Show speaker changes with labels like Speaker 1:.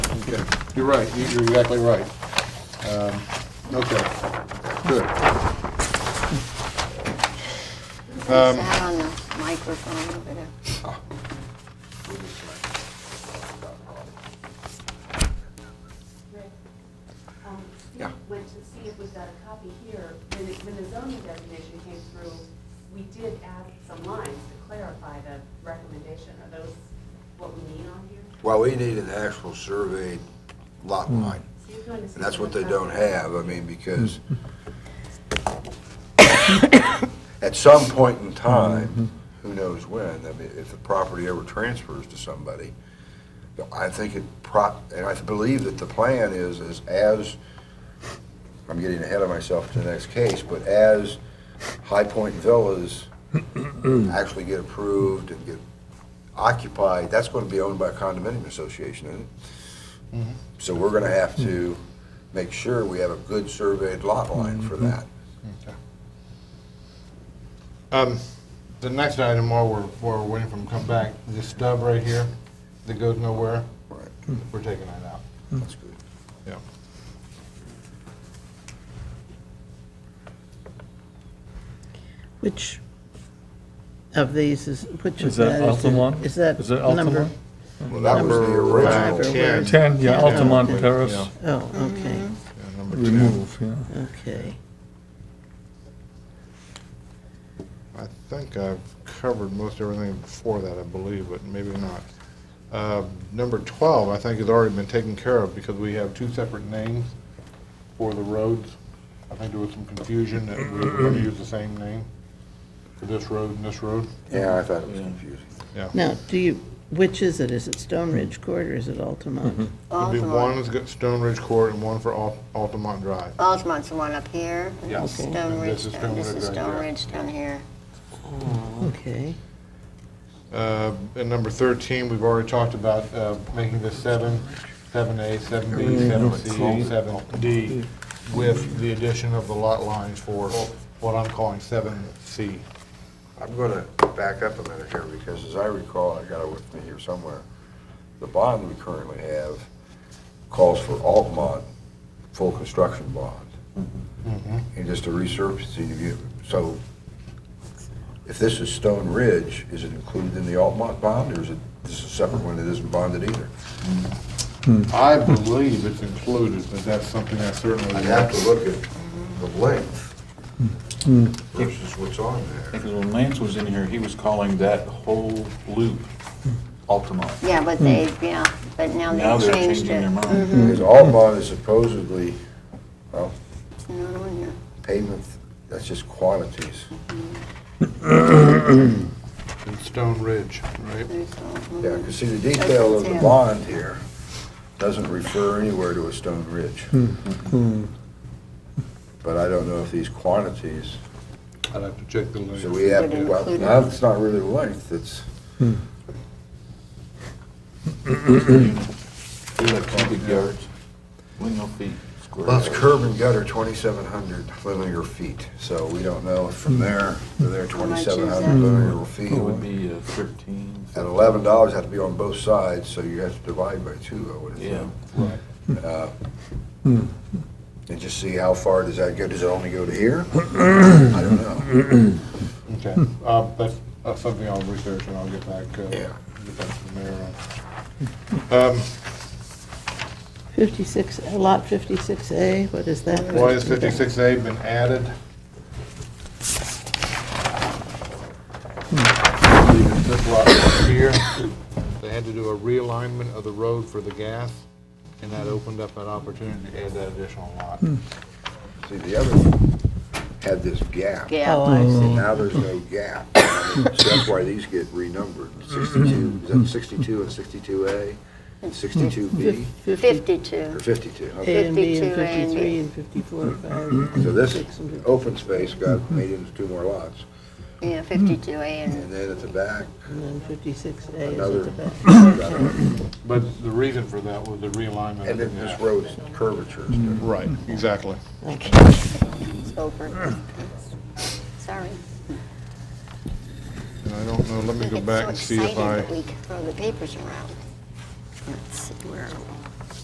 Speaker 1: Okay, you're right, You- you're exactly right. Um, Okay, good. Um,
Speaker 2: Sat on the microphone over there.
Speaker 3: Rick, um, Steve
Speaker 1: Yeah.
Speaker 3: went to see if we've got a copy here. When it- when the zoning designation came through, we did add some lines to clarify the recommendation. Are those what we need on here?
Speaker 4: Well, we need an actual surveyed lot line,
Speaker 3: So you're going to see
Speaker 4: and that's what they
Speaker 3: what's out
Speaker 4: don't
Speaker 3: there.
Speaker 4: have, I mean, because at some point in time, who knows when, I mean, if the property ever transfers to somebody, I think it pro, and I believe that the plan is, is as, I'm getting ahead of myself to the next case, but as High Point Villas actually get approved and get occupied, that's going to be owned by a condominium association, isn't it? So we're going to have to make sure we have a good surveyed lot line
Speaker 1: Mm-hmm.
Speaker 4: for that.
Speaker 1: Um, The next item, while we're, while we're waiting for him to come back, this stub right here that goes nowhere,
Speaker 4: Right,
Speaker 1: we're taking that out.
Speaker 4: that's good.
Speaker 1: Yeah.
Speaker 5: Which of these is, which of
Speaker 6: Is that
Speaker 5: that is? the-
Speaker 6: Altamont?
Speaker 5: Is that
Speaker 6: Is that Altamont?
Speaker 5: number?
Speaker 4: Well, that was the
Speaker 1: Number five
Speaker 4: original.
Speaker 1: or where-
Speaker 6: 10, yeah,
Speaker 5: Yeah.
Speaker 6: Altamont
Speaker 5: Okay.
Speaker 6: Terrace,
Speaker 1: Yeah,
Speaker 5: Oh, okay,
Speaker 1: yeah, number 10.
Speaker 6: remove, yeah.
Speaker 5: okay.
Speaker 1: I think I've covered most everything before that, I believe, but maybe not. Uh, Number 12, I think, has already been taken care of because we have two separate names for the roads. I think there was some confusion that we were going to use the same name for this road and this road.
Speaker 4: Yeah, I thought it was confusing.
Speaker 1: Yeah.
Speaker 5: Now, do you, which is it? Is it Stone Ridge Court or is it Altamont?
Speaker 6: Mm-hmm.
Speaker 1: There'll be
Speaker 2: Altamont.
Speaker 1: one that's got Stone Ridge Court and one for Al- Altamont Drive.
Speaker 2: Altamont's the one up here. and
Speaker 1: Yes.
Speaker 5: Okay.
Speaker 2: Stone
Speaker 1: And
Speaker 2: Ridge,
Speaker 1: this is
Speaker 2: down- this
Speaker 1: Stone
Speaker 2: is
Speaker 1: Ridge right
Speaker 2: Stone
Speaker 1: here.
Speaker 2: Ridge down here.
Speaker 5: Oh, okay.
Speaker 1: Uh, And number 13, we've already talked about uh, making this 7, 7A, 7B, 7C, 7D, with the addition of the lot lines for what I'm calling 7C.
Speaker 4: I'm going to back up a minute here because as I recall, I got it with me here somewhere, the bond we currently have calls for Altmont full construction bond. And just a resurfacing of you, so if this is Stone Ridge, is it included in the Altmont bond or is it, this is a separate one that isn't bonded either?
Speaker 1: I believe it's included, but that's something I certainly.
Speaker 4: I'd have to look at the length versus what's on there.
Speaker 7: Because when Lance was in here, he was calling that whole loop Altamont.
Speaker 2: Yeah, but they,
Speaker 1: Hmm.
Speaker 2: yeah, but now
Speaker 7: Now
Speaker 2: they
Speaker 7: they're
Speaker 2: changed
Speaker 7: changing
Speaker 2: it.
Speaker 7: their
Speaker 2: Mm,
Speaker 7: mind.
Speaker 4: Because Altmont is supposedly
Speaker 2: It's not on here.
Speaker 4: pavement, that's just quantities.
Speaker 1: In Stone Ridge, right?
Speaker 2: There's Altamont.
Speaker 4: Yeah, because see, the detail of the
Speaker 2: That's
Speaker 4: bond here doesn't refer anywhere to a stone ridge.
Speaker 7: Hmm.
Speaker 4: Hmm. But I don't know if these quantities,
Speaker 1: I'd have to check the
Speaker 4: so
Speaker 1: list.
Speaker 4: we have,
Speaker 2: Would it
Speaker 4: well,
Speaker 2: include-
Speaker 4: now it's not really length, it's,
Speaker 2: Mm-hmm.
Speaker 7: They're like cubic yards, lineal feet, square.
Speaker 4: well, it's
Speaker 7: yards.
Speaker 4: curb and gutter, 2,700 linear feet. So we don't know if from there, to there,
Speaker 2: How much is
Speaker 4: 2,700
Speaker 2: that?
Speaker 4: linear
Speaker 7: Hmm. It would
Speaker 4: feet.
Speaker 7: be uh, thirteen.
Speaker 4: At $11, that'd be on both sides, so you have to divide by two, I would
Speaker 7: Yeah.
Speaker 4: assume. And just see how far does that go? Does it only go to here? I don't know.
Speaker 1: Okay, Uh, that's that's something I'll research and I'll get back, uh,
Speaker 4: Yeah.
Speaker 1: get back to the mayor on. Um,
Speaker 5: 56, Lot 56A, what is that?
Speaker 1: Why has 56A been added? Leaving This lot right here, they had to do a realignment of the road for the gas, and that opened up an opportunity to add that additional lot.
Speaker 4: See, the other one had this gap.
Speaker 5: Oh,
Speaker 2: Yeah,
Speaker 5: I see.
Speaker 6: Mm.
Speaker 4: Now there's no gap. So that's why these get renumbered. 62, is that 62 and 62A and 62B
Speaker 5: Fif-
Speaker 2: 52.
Speaker 4: or 52? Okay.
Speaker 5: A and B and
Speaker 2: 52 A and B.
Speaker 5: 53 and 54, 5.
Speaker 4: So this
Speaker 5: Six and fif-
Speaker 4: open space got made into two more lots.
Speaker 2: Yeah, 52A and,
Speaker 4: And then at the back,
Speaker 5: And then 56A is
Speaker 4: another.
Speaker 5: at the back.
Speaker 1: But the reason for that was the realignment of
Speaker 4: And
Speaker 1: the
Speaker 4: then this
Speaker 1: gas.
Speaker 4: road's curvature.
Speaker 1: Right, exactly.
Speaker 5: Okay.
Speaker 2: it's over. Sorry.
Speaker 1: And I don't know, let me go back and see if I,
Speaker 2: It's so exciting that we can throw the papers around. Let's see, where are we?